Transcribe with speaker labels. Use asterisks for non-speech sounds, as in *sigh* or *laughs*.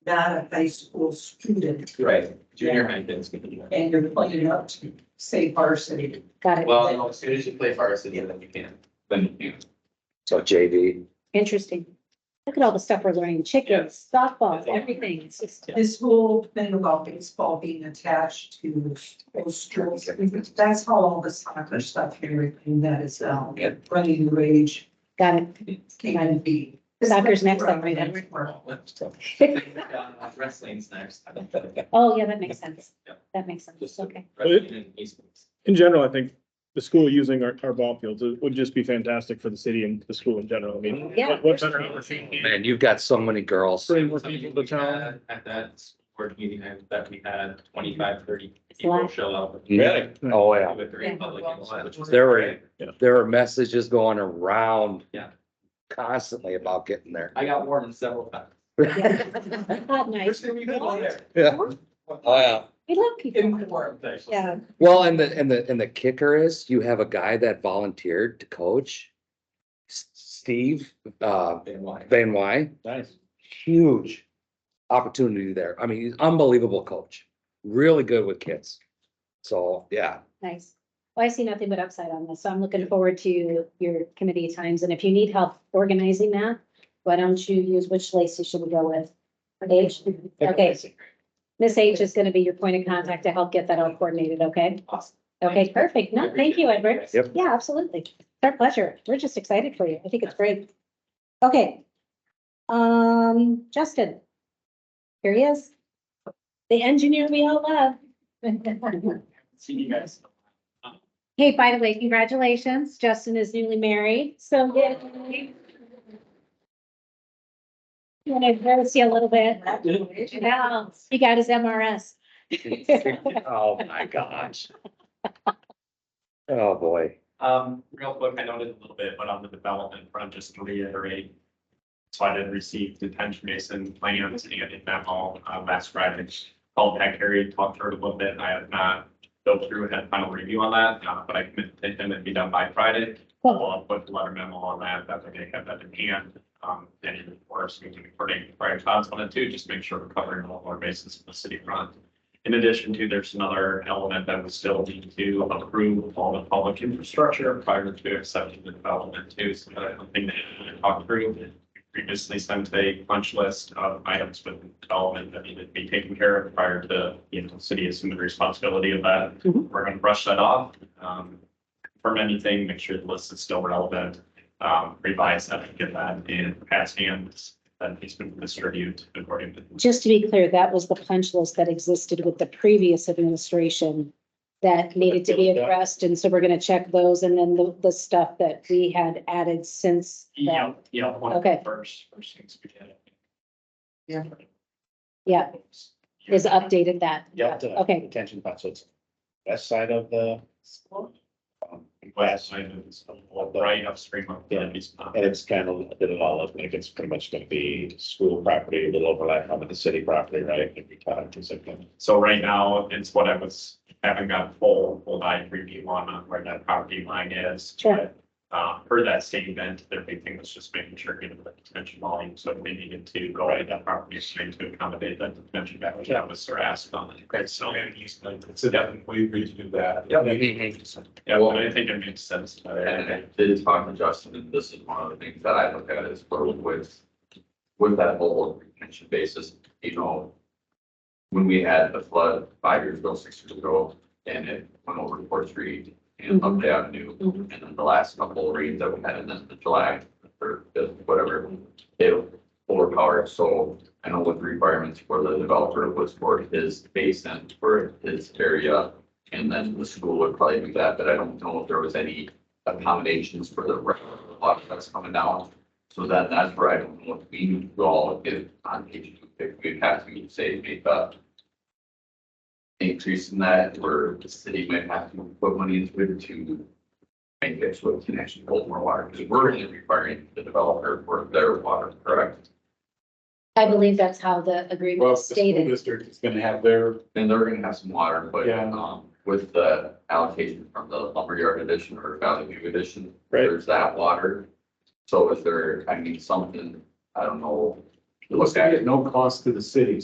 Speaker 1: not a high school student
Speaker 2: Right, junior high kids. can do that.
Speaker 1: and you're playing up to, say varsity.
Speaker 3: Got it.
Speaker 2: Well, no, as soon as you play varsity, then you can, then you can.
Speaker 4: So JV,
Speaker 3: Interesting. Look at all the stuff we're learning, chickens, softball, everything. It's just,
Speaker 1: This whole thing about baseball being attached to those schools, that's how all the soccer stuff and everything that is, um, running rage
Speaker 3: got it.
Speaker 1: can be.
Speaker 3: Soccer's next up, right, Edward?
Speaker 2: Uh, Wrestling's next.
Speaker 3: *laughs* Oh, yeah, that makes sense.
Speaker 2: Yeah.
Speaker 3: That makes sense.
Speaker 2: Just
Speaker 3: Okay.
Speaker 2: wrestling and esports.
Speaker 5: In general, I think the school using our, our ball fields it would just be fantastic for the city and the school in general. I mean, what-
Speaker 3: Yeah.
Speaker 5: what better opportunity?
Speaker 4: man, you've got so many girls.
Speaker 5: Bring more people to town.
Speaker 2: At that board meeting I- that we had, 25, 30 people
Speaker 3: lot.
Speaker 2: show up.
Speaker 4: Really? Oh, yeah.
Speaker 2: With
Speaker 3: Yeah.
Speaker 2: three public. which was
Speaker 4: There
Speaker 2: great.
Speaker 4: were, there were messages going around.
Speaker 2: Yeah.
Speaker 4: Constantly about getting there.
Speaker 2: I got warned several times. *laughs*
Speaker 3: Hot night.
Speaker 2: First thing we did was there.
Speaker 4: Yeah. Oh, yeah.
Speaker 3: We love
Speaker 2: In
Speaker 3: people.
Speaker 2: forums, actually.
Speaker 3: Yeah.
Speaker 4: Well, and the, and the, and the kicker is you have a guy that volunteered to coach. S- Steve, uh,
Speaker 2: And why?
Speaker 4: Van Wy,
Speaker 5: Nice.
Speaker 4: huge opportunity there. I mean, he's unbelievable coach, really good with kids. So, *laughs* yeah,
Speaker 3: Nice. Well, I see nothing but upside on this, so I'm looking forward to your committee times, and if you need help organizing that, why don't you use which laces should we go with? H, okay. Miss H is gonna be your point of contact to help get that all coordinated, okay?
Speaker 2: Awesome.
Speaker 3: Okay, perfect. No, thank you, Edward.
Speaker 4: Yep.
Speaker 3: Yeah, absolutely. It's Our pleasure. We're just excited for you. I think it's great. Okay. Um, Justin. Here he is. The engineer we all love.
Speaker 2: See you guys.
Speaker 3: *laughs* Hey, by the way, congratulations. Justin is newly married, so. yay. You want to go see a little bit? No, He got his MRS.
Speaker 4: Oh, my *laughs* gosh. Oh, boy.
Speaker 6: Um, real quick, I noted a little bit, but on the development front, just to reiterate. So I did receive the Tench Mason plans and a memo, uh, last Friday. Called back Harry, talked to her a little bit, and I have not go through and had final review on that, uh, but I committed to them to be done by Friday.
Speaker 3: Cool.
Speaker 6: I'll put the letter memo on that, that way they have that in hand, um, and in course, we can coordinate prior thoughts on it too, just make sure we're covering all of our bases in the city front. In addition to, there's another element that we still need to approve all the public infrastructure prior to accepting the development too, so that's something that we talked through. Previously sent a punch list of items with development that needed to be taken care of prior to, you know, city assuming the responsibility of that we're gonna brush that off. Um, from anything, make sure the list is still relevant, um, revise that, and get that in past hands. That has been distributed according to.
Speaker 3: Just to be clear, that was the punch list that existed with the previous administration that needed to be addressed, and so we're gonna check those and then the, the stuff that we had added since
Speaker 6: Yeah,
Speaker 3: then.
Speaker 6: yeah. one of the
Speaker 3: Okay.
Speaker 6: First, first things we did.
Speaker 1: Yeah.
Speaker 3: Yeah, is updated that.
Speaker 7: Yeah, the
Speaker 3: Okay.
Speaker 7: Detention ponds, so it's west side of the, um,
Speaker 6: Last
Speaker 7: west,
Speaker 6: time it was right upstream of the east.
Speaker 7: and it's kind of, did it all up, like it's pretty much gonna be school property, a little overlap on the city property, right? If you talk to something.
Speaker 6: So right now, it's what I was, having got full, full eye review on, on where that property line is.
Speaker 3: Sure.
Speaker 6: But, Uh, per that same event, their big thing was just making sure, given the detention volume, so they needed to go right that property stream to accommodate that detention back, that was their ask on it. Okay, so.
Speaker 8: So that we agreed to do that.
Speaker 2: Yep.
Speaker 6: Yeah, well, I think it makes sense. uh,
Speaker 8: And I did talk to Justin, and this is one of the things that I look at is with, with that whole retention basis, you know. When we had the flood five years ago, six years ago, and it went over Fourth Street and up the avenue, and
Speaker 3: Mhm.
Speaker 8: then the last couple of rains that we had in the the July or the- whatever, it overpowered, so I know what the requirements for the developer was for his basin, for his area. And then the school would probably do that, but I don't know if there was any accommodations for the rest of the lot that's coming down. So that, that's where I don't know if we need to all if on page two, if we have to say make up. Increase in that, where the city might have to put money into it to. Make it so it can actually hold more water, because we're only requiring the developer for their water, correct?
Speaker 3: I believe that's how the agreement is stated.
Speaker 8: district is gonna have their. And they're gonna have some water, but
Speaker 7: Yeah.
Speaker 8: um with the allocation from the lumberyard addition or Valley View addition.
Speaker 5: Right.
Speaker 8: There's that water. So is there, I mean, something, I don't know. Look at it.
Speaker 7: no cost to the city,